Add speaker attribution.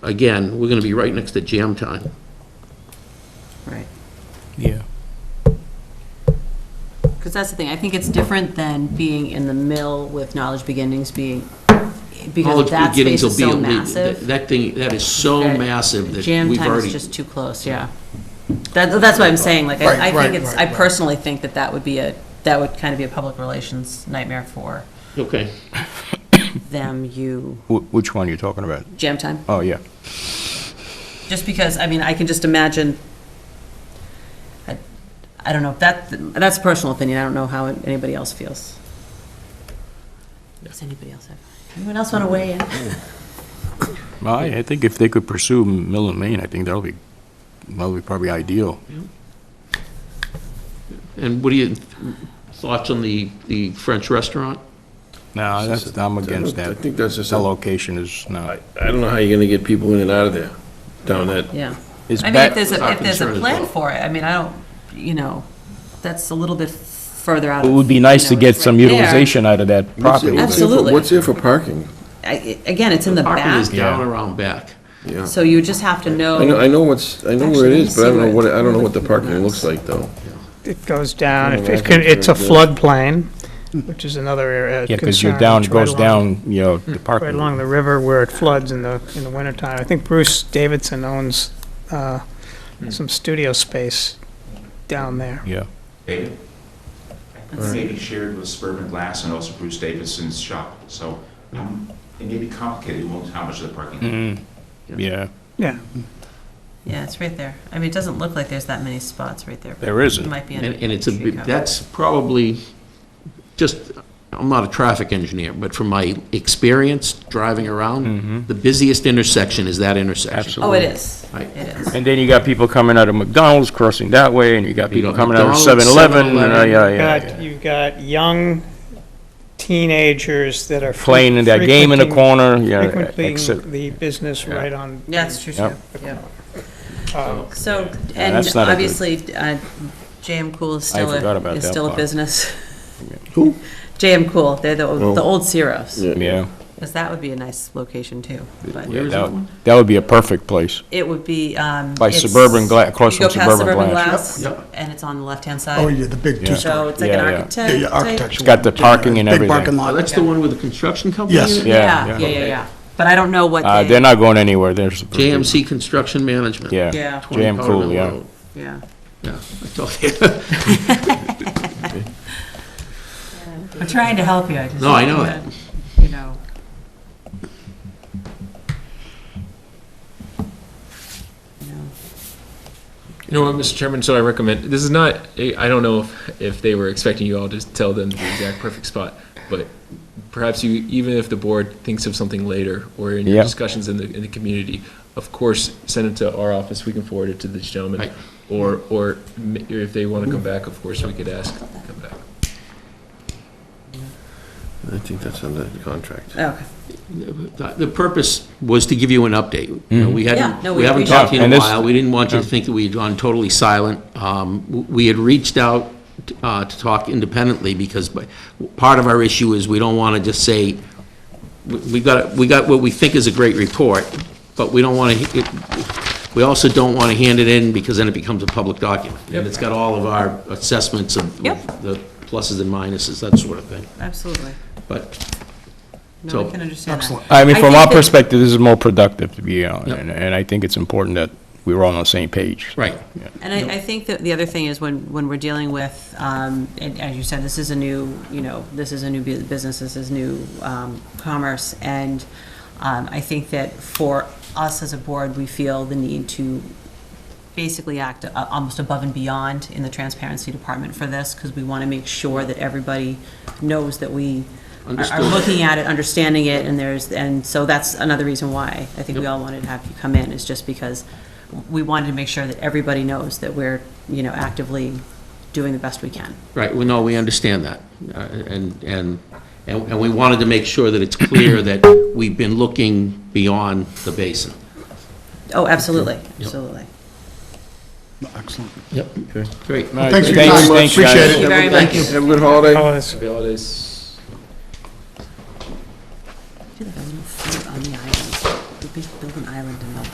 Speaker 1: again, we're gonna be right next to jam time.
Speaker 2: Right.
Speaker 3: Yeah.
Speaker 2: Because that's the thing, I think it's different than being in the mill with Knowledge Beginnings being, because
Speaker 1: College
Speaker 2: that space
Speaker 1: beginnings will
Speaker 2: is
Speaker 1: be
Speaker 2: so
Speaker 1: elite. That-
Speaker 2: massive.
Speaker 1: That thing, that is so
Speaker 2: that
Speaker 1: massive that
Speaker 2: Jam
Speaker 1: we've
Speaker 2: time is
Speaker 1: already,
Speaker 2: just too close, yeah. That, that's what I'm saying, like,
Speaker 3: Right,
Speaker 2: I- I
Speaker 3: right,
Speaker 2: think it's,
Speaker 3: right,
Speaker 2: I
Speaker 3: right.
Speaker 2: personally think that that would be a, that would kind of be a public relations nightmare for
Speaker 1: okay.
Speaker 2: them, you,
Speaker 4: Wh- Which one are you talking about?
Speaker 2: jam time.
Speaker 4: Oh, yeah.
Speaker 2: Just because, I mean, I can just imagine, I I don't know, that, that's a personal opinion, I don't know how anybody else feels. Does anybody else have, anyone else want to weigh in?
Speaker 4: Well, I, I think if they could pursue Mill and Main, I think that'll be, that'll be probably ideal.
Speaker 1: And what are your thoughts on the, the French restaurant?
Speaker 4: No, that's, I'm against
Speaker 5: I
Speaker 4: that.
Speaker 5: think that's just,
Speaker 4: That
Speaker 5: I
Speaker 4: location is, no.
Speaker 5: I don't know how you're gonna get people in and out of there, down that.
Speaker 2: Yeah.
Speaker 4: It's
Speaker 2: I mean, if
Speaker 4: back,
Speaker 2: there's, a if there's a
Speaker 1: Concern as
Speaker 2: plan
Speaker 1: well.
Speaker 2: for it, I mean, I don't, you know, that's a little bit further out.
Speaker 4: it
Speaker 2: of,
Speaker 4: would be
Speaker 2: you
Speaker 4: nice
Speaker 2: know,
Speaker 4: to get
Speaker 2: it's
Speaker 4: some
Speaker 2: right there.
Speaker 4: utilization out of that property.
Speaker 5: What's there for-
Speaker 2: Absolutely.
Speaker 5: What's there for parking?
Speaker 2: I- Again, it's in the
Speaker 1: Parking is
Speaker 2: back,
Speaker 1: down
Speaker 4: Yeah.
Speaker 1: around back.
Speaker 5: Yeah.
Speaker 2: so you just have to
Speaker 5: I know,
Speaker 2: know,
Speaker 5: I know what's, I know where it
Speaker 2: Actually,
Speaker 5: is, but I don't know what, I don't know what the
Speaker 2: let me see where it's-
Speaker 5: parking looks like, though.
Speaker 6: It goes down,
Speaker 4: Oh,
Speaker 5: Kinda
Speaker 6: It- it
Speaker 5: like
Speaker 6: can-
Speaker 5: it's
Speaker 6: it's a
Speaker 5: very
Speaker 6: floodplain, which is another area of
Speaker 4: Yeah, because you're
Speaker 6: concern,
Speaker 4: down,
Speaker 6: it's right
Speaker 4: goes
Speaker 6: along-
Speaker 4: down, you know, the parking.
Speaker 6: Right along the river where it floods in the, in the wintertime. I think Bruce Davidson owns uh, some studio space down there.
Speaker 4: Yeah.
Speaker 7: David? Maybe shared with Spurman Glass and also Bruce Davidson's shop, so um, it may be complicated, who knows how much of the parking.
Speaker 4: Mm, Yeah,
Speaker 6: Yeah,
Speaker 2: yeah, it's right there. I mean, it doesn't look like there's that many spots right there. but
Speaker 4: there
Speaker 2: It
Speaker 4: isn't.
Speaker 2: might be.
Speaker 1: And,
Speaker 2: under
Speaker 1: and it's a,
Speaker 2: tree
Speaker 1: bit-
Speaker 2: cover.
Speaker 1: that's probably, just, I'm not a traffic engineer, but from my experience driving around, the busiest intersection is that intersection.
Speaker 4: Mm-hmm. Absolutely.
Speaker 2: Oh, it is,
Speaker 1: I-
Speaker 2: it is.
Speaker 4: And then you got people coming out of McDonald's crossing that way, and you got
Speaker 1: You
Speaker 4: people
Speaker 1: got
Speaker 4: coming out of
Speaker 1: McDonald's,
Speaker 4: 7-Eleven, and, uh,
Speaker 1: 7-Eleven.
Speaker 4: yeah,
Speaker 6: You've
Speaker 4: yeah, yeah.
Speaker 6: got, you've got young teenagers that are. fre-
Speaker 4: Playing that game in the
Speaker 6: frequenting-
Speaker 4: corner, yeah. except-
Speaker 6: Frequenting the business right on.
Speaker 2: Yeah, it's true,
Speaker 4: Yep.
Speaker 2: too. Yeah.
Speaker 1: Um,
Speaker 6: uh,
Speaker 2: So, and
Speaker 4: that's not a good-
Speaker 2: obviously, uh, JM Cool is still,
Speaker 4: forgot
Speaker 2: a
Speaker 4: about
Speaker 2: is
Speaker 4: that
Speaker 2: still a
Speaker 4: part.
Speaker 2: business.
Speaker 5: Who?
Speaker 2: JM Cool, they're the, the old Ciro's,
Speaker 4: Oh. Yeah,
Speaker 2: because that would be a nice location, too. but-
Speaker 1: Where is
Speaker 4: that-
Speaker 1: that one?
Speaker 4: that would be a perfect place.
Speaker 2: It would be, um.
Speaker 4: By
Speaker 2: it's-
Speaker 4: Suburban Gla- across
Speaker 2: you go
Speaker 4: from
Speaker 2: past
Speaker 4: Suburban Glass.
Speaker 1: Yep, yep.
Speaker 2: And it's on the left-hand
Speaker 8: Oh,
Speaker 2: side.
Speaker 8: yeah, the big
Speaker 4: Yeah.
Speaker 8: two-story.
Speaker 2: So it's like an
Speaker 4: Yeah, yeah.
Speaker 8: Yeah,
Speaker 2: architect.
Speaker 8: yeah,
Speaker 4: It's
Speaker 8: architectural.
Speaker 4: got the parking and
Speaker 8: Big
Speaker 4: everything.
Speaker 8: parking
Speaker 1: Oh,
Speaker 8: lot.
Speaker 1: that's the one with the construction company?
Speaker 8: Yes.
Speaker 1: in it?
Speaker 4: Yeah,
Speaker 2: Yeah,
Speaker 4: yeah.
Speaker 2: yeah, yeah, yeah. But I don't know what
Speaker 4: Uh,
Speaker 2: they.
Speaker 4: they're not going anywhere, there's.
Speaker 1: JMC Construction Management.
Speaker 4: Yeah.
Speaker 2: Yeah.
Speaker 1: 20
Speaker 4: Jam
Speaker 1: Powder
Speaker 4: Cool,
Speaker 1: Mill
Speaker 4: yeah.
Speaker 1: Road.
Speaker 2: Yeah.
Speaker 1: Yeah, I told you.
Speaker 2: I'm trying to help you, I just.
Speaker 1: No, I know that.
Speaker 2: You know. You know.
Speaker 9: You know what, Mr. Chairman, so I recommend, this is not, I don't know if, if they were expecting you all to tell them the exact perfect spot, but perhaps you, even if the board thinks of something later, or in your
Speaker 4: Yeah.
Speaker 9: discussions in the, in the community, of course, send it to our office, we can forward it to this
Speaker 1: Right.
Speaker 9: gentleman. Or, or m- if they want to come back, of course, we could ask, to come back.
Speaker 5: I think that's under the contract.
Speaker 2: Okay.
Speaker 1: The the purpose was to give you an update. You know, We
Speaker 2: Mm-hmm. Yeah, no,
Speaker 1: hadn't,
Speaker 2: we
Speaker 1: we haven't talked to you in
Speaker 4: appreciate
Speaker 1: a
Speaker 4: it.
Speaker 1: while, we didn't want you to think that we had gone totally silent. Um, w- We had reached out uh, to talk independently, because by- part of our issue is we don't want to just say, we- we got, we got what we think is a great report, but we don't want to, we also don't want to hand it in, because then it becomes a public document. And it's got all of our assessments of
Speaker 2: Yep.
Speaker 1: the pluses and minuses, that sort of thing.
Speaker 2: Absolutely.
Speaker 1: But
Speaker 2: No,
Speaker 1: So-
Speaker 2: I can understand that.
Speaker 8: Excellent.
Speaker 4: I mean,
Speaker 2: I
Speaker 4: from
Speaker 2: think
Speaker 4: our
Speaker 2: that-
Speaker 4: perspective, this is more productive to be on,
Speaker 1: Yep.
Speaker 4: and, and I think it's important that we were all on the same page.
Speaker 1: Right.
Speaker 4: Yeah.
Speaker 2: And I, I think that the other thing is when, when we're dealing with, um, and as you said, this is a new, you know, this is a new bu- business, this is new, um, commerce. And, um, I think that for us as a board, we feel the need to basically act a- almost above and beyond in the transparency department for this, because we want to make sure that everybody knows that we are- are
Speaker 1: Understood.
Speaker 2: looking at it, understanding it, and there's, and so that's another reason why I think we all wanted to have you come in, is just because we wanted to make sure that everybody knows that we're, you know, actively doing the best we can.
Speaker 1: Right, well, no, we understand that, Uh, and, and, and and we wanted to make sure that it's clear that we've been looking beyond the basin.
Speaker 2: Oh, absolutely, absolutely.
Speaker 8: Excellent.
Speaker 1: Yep. Great.
Speaker 4: All right,
Speaker 8: Thanks for your time,
Speaker 4: thanks, guys.
Speaker 8: appreciate it.
Speaker 2: Thank you very
Speaker 5: Have a good holiday.
Speaker 6: Oh, it's-
Speaker 9: Happy holidays.